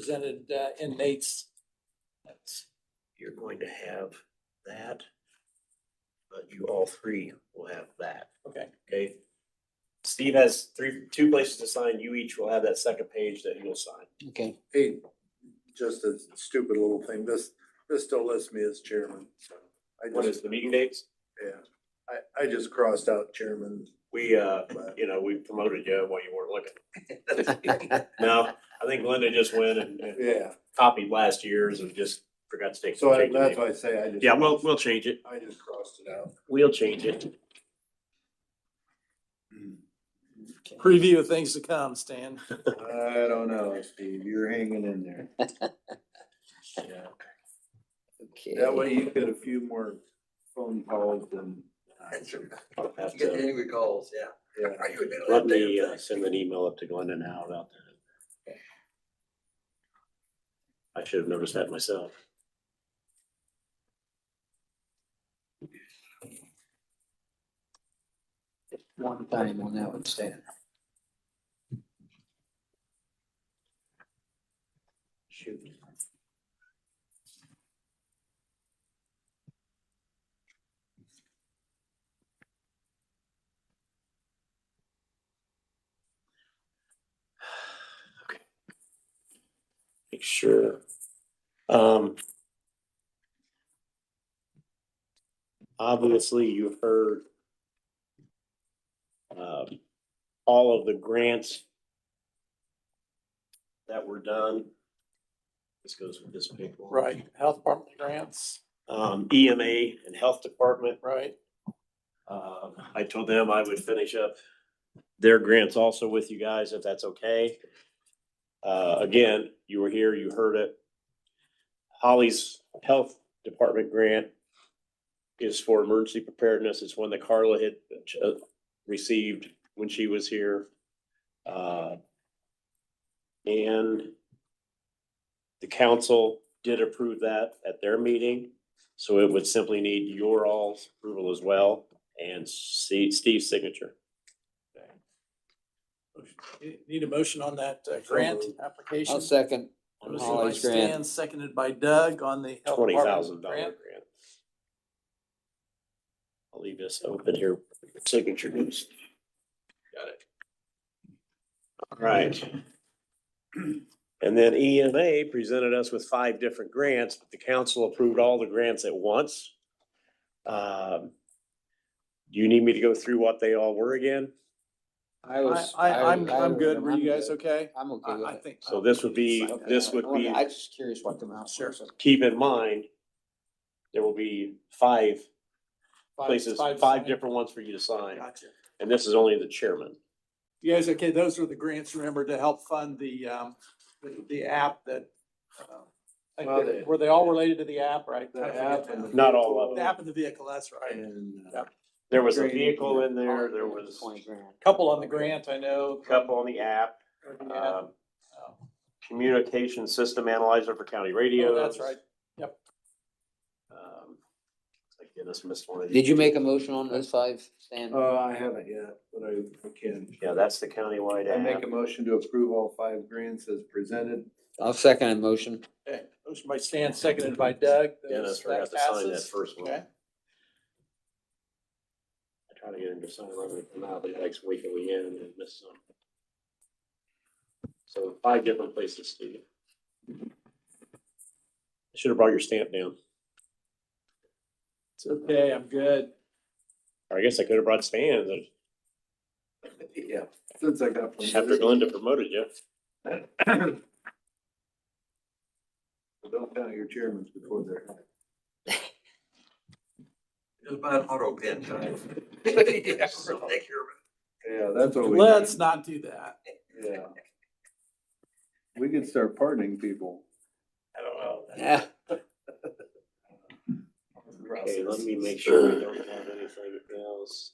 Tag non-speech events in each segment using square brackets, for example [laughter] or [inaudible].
presented uh, in Nate's. you're going to have that. But you all three will have that, Okay, okay? Steve has three, two places to sign. You each will have that second page that you'll sign. okay. Hey, just a stupid little thing, this, this still lists me as chairman, so. I What just, is the meeting dates? yeah, I, I just crossed out chairman, We, uh, but you know, we promoted you while you weren't looking. No, I think Linda just went and and yeah, copied last year's and just forgot to take. so I- take the that's name. why I say I just. Yeah, we'll, we'll change it. I just crossed it [laughs] out. We'll change it. Preview of things to come, Stan. I don't know, Steve, you're hanging in there. Yeah, Okay. that way you get a few more phone calls than. I'll have Get to- any recalls, yeah. Yeah, Are you admitting Let that me damn uh, thing? send an email up to Glenda now about that. I should have noticed that myself. One time on that one, Stan. Shoot. Make sure. Um. Obviously, you've heard. Um, all of the grants. That were done. This goes with this paper. Right, health department grants, Um, EMA and Health Department right? Um, I told them I would finish up their grants also with you guys, if that's okay. Uh, again, you were here, you heard it. Holly's Health Department grant is for emergency preparedness. It's one that Carla had uh, received when she was here. Uh, and the council did approve that at their meeting, so it would simply need your all's approval as well and Steve, Steve's signature. Need a motion on that uh, grant application? I'll second. Motion by Holly's Stan, grant. Seconded by Doug on the. health Twenty department thousand dollar grant. grant. I'll leave this open here, signature news. Got it. All right. And then EMA presented us with five different grants, but the council approved all the grants at once. Um, Do you need me to go through what they all were again? I I, was. I, I'm, was- I'm good. was- Were you guys I'm good. okay? I'm okay I, with I it. think. So this would be, this would be. I just curious what the amount. Sure. was. keep in mind, there will be five Five- places, five different ones for you to sign, Gotcha. and this is only the chairman. You guys, okay, those are the grants, remember, to help fund the, um, the, the app that, uh, I Well, think- the- were they all related to the app, right? The I forget app and now. the Not all of The them. app and the vehicle, that's right. and, uh, Yeah. There was a vehicle in there, there was Twenty grand. Couple on the grant, I know. a couple on the app, Yeah. um, Oh, communication system analyzer for county radios. That's right. Um, I Dennis missed one of these. Did you make a motion on those five, Stan? uh, I haven't yet, but I I can. Yeah, that's the countywide I make a app. motion to approve all five grants as presented. I'll second a motion. Okay, motion by Stan, seconded by Doug. Those- Dennis forgot to sign that passes. first one. Okay. I try to get him to sign one, but now the next week and we end and miss some. So five different places, Steve. Should have brought your stamp down. It's okay, I'm good. Or I guess I could have brought Stan's. Yeah. Since I got. After Glenda promoted [laughs] you. [coughs] Don't count your chairmans before they're. It was about auto pen time. So take care of it. Yeah, that's what we. Let's not do that. Yeah. We could start pardoning people. I don't know. Yeah. Okay, let me make sure we don't have anything else.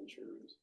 Insurance.